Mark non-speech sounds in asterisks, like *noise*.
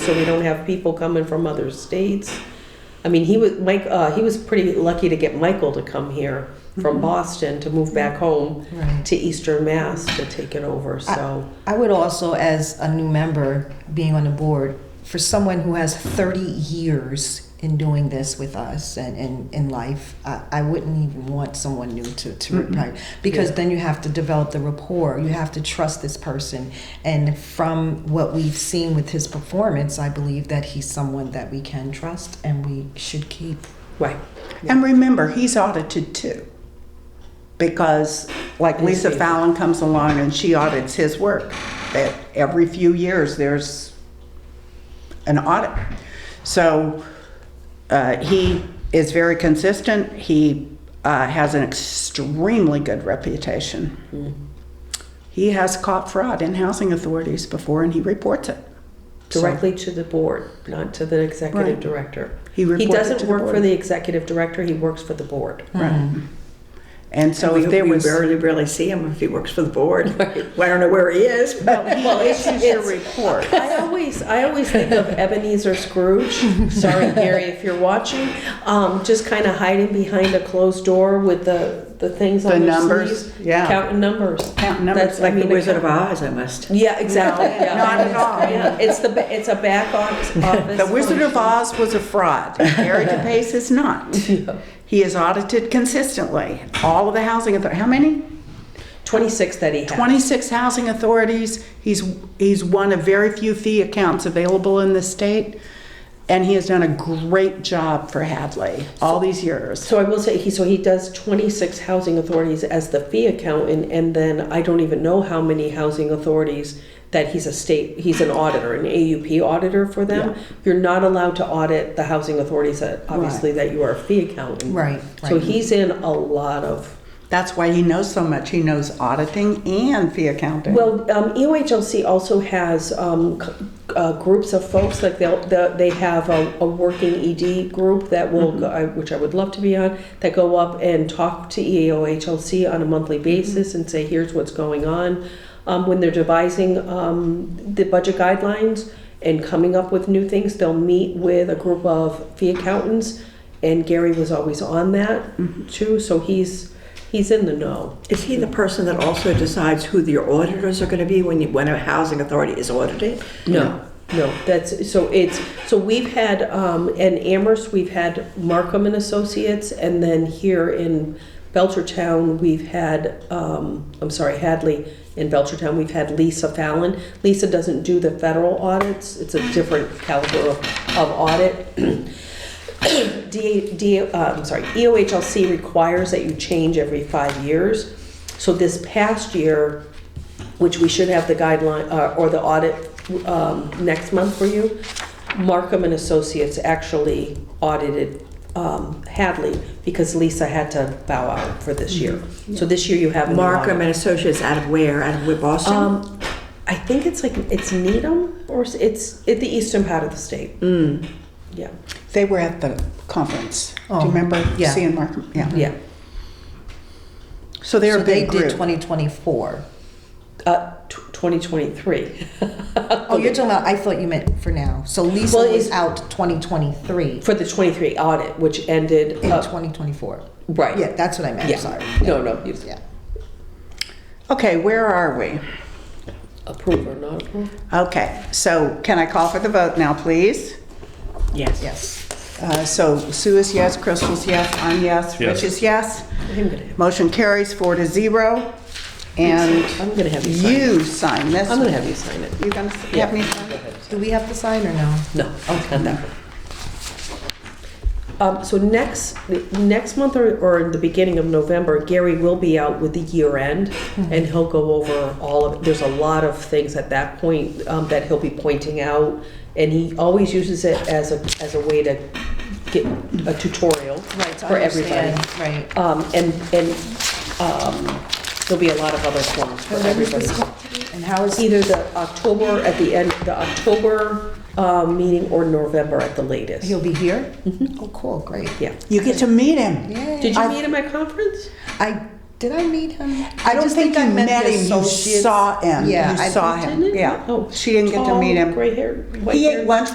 so we don't have people coming from other states. I mean, he was Mike. Uh, he was pretty lucky to get Michael to come here from Mm-hmm. Boston to move back home Right. to Eastern Mass to take it over. So I would also, as a new member being on the board, for someone who has 30 years in doing this with us and in, in life, I, I wouldn't even want someone new to, to retire because then you have to develop the rapport. You have to trust this person. And from what we've seen with his performance, I believe that he's someone that we can trust and we should keep. right, And remember, he's audited too. Because like And his Lisa fees. Fallon comes along and she audits his work, that every few years there's an audit. So uh, he is very consistent. He uh, has an extremely good reputation. He has caught fraud in housing authorities before and he reports it. directly to the board, not to the executive Right. director. He reported doesn't to the work for board. the executive director. He works for the board. Right. Um, And so we, if there we was. barely barely see him if he works for *laughs* the board. Well, I don't know where he is. But Well, *laughs* it's, Here's your report. I always, I always think of Ebenezer Scrooge. Sorry, Gary, if you're watching, um, just kind of hiding behind a closed door with the the things on The their numbers, sleeves, yeah. counting numbers. Counting numbers, That's- I like the mean, it Wizard of coun- Oz, I must. Yeah, exactly. No, yeah. not at all. Yeah, it's the ba- it's a back office. *laughs* The Wizard of Oz was a fraud. *laughs* Gary DePace is *laughs* not. He is audited consistently. All of the housing author, how many? Twenty six that he had. 26 housing authorities. He's, he's one of very few fee accounts available in the state. And he has done a great job for Hadley all these years. So I will say he so he does 26 housing authorities as the fee accountant and then I don't even know how many housing authorities that he's a state he's an auditor an AUP auditor for them. Yeah. You're not allowed to audit the housing authorities that obviously that you are a fee accountant. Right, So right. he's in a lot of That's why he knows so much. He knows auditing and fee accounting. Well, um, EOHLC also has um, c- uh, groups of folks, like they'll, the- they have a, a working ED group that will, go- I- which I would love to be on, that go up and talk to E EOHLC on a monthly basis and say, here's what's going on. Um, When they're devising um, the budget guidelines and coming up with new things, they'll meet with a group of fee accountants. And Gary was always on that too, so he's, he's in the know. Is he the person that also decides who the auditors are going to be when you, when a housing authority is audited? No, no, that's, so it's, so we've had, um, in Amherst, we've had Markham and Associates, and then here in Belchertown, we've had, um, I'm sorry, Hadley in Belchertown, we've had Lisa Fallon. Lisa doesn't do the federal audits, it's a different caliber of, of audit. *clears throat* D, D, uh, I'm sorry, EOHLC requires that you change every five years. So this past year, which we should have the guideline, uh, or the audit, um, next month for you, Markham and Associates actually audited, um, Hadley because Lisa had to bow out for this year. Mm-hmm. So this year you have. a new Markham audit. and Associates out of where? Out of where, Boston? Um, I think it's like, it's Needham or s- it's, it's the eastern part of the state. Mm. Yeah, They were at the conference. Do you Oh, remember yeah. seeing Mark? Yeah. yeah. So they're so a big they did group. 2024. Uh, tw 2023. Oh, you're talking about, I thought you meant for now. So Lisa Well, was it's- out 2023 *laughs* For the 23 audit, which ended, in Oh. uh, 2024. right. Yeah, that's what I meant, Yeah. sorry. No, no, you- Yeah. Okay, where are we? approve or not approve? Okay, so can I call for the vote now, please? yes. Yes. Uh, So Sue is yes, Crystal's yes, I'm yes, Yes. Rich is yes. I'm gonna have, Motion carries four to zero. And I'm gonna have you sign it. you sign this. I'm gonna have you sign it. You're gonna s- have me sign it? Do we have to sign or no? No, okay, no. Um, so next, the- next month or, or in the beginning of November, Gary will be out with the year end Hmm. and he'll go over all of, there's a lot of things at that point, um, that he'll be pointing out. And he always uses it as a, as a way to get a tutorial Right, to for everybody. understand, right. Um, and, and, um, there'll be a lot of other forms for everybody. And how is, Either the October, at the end, the October, um, meeting or November at the latest. he'll be here? Mm-hmm. Oh, cool, great. Yeah. You get to meet him. Did Yay. you meet him at conference? I, did I meet him? I don't just think I you met the him, you associates. saw him. Yeah. You I- saw him, Didn't he? yeah. Oh, She didn't get to meet him. Gray hair, white He hair. ate lunch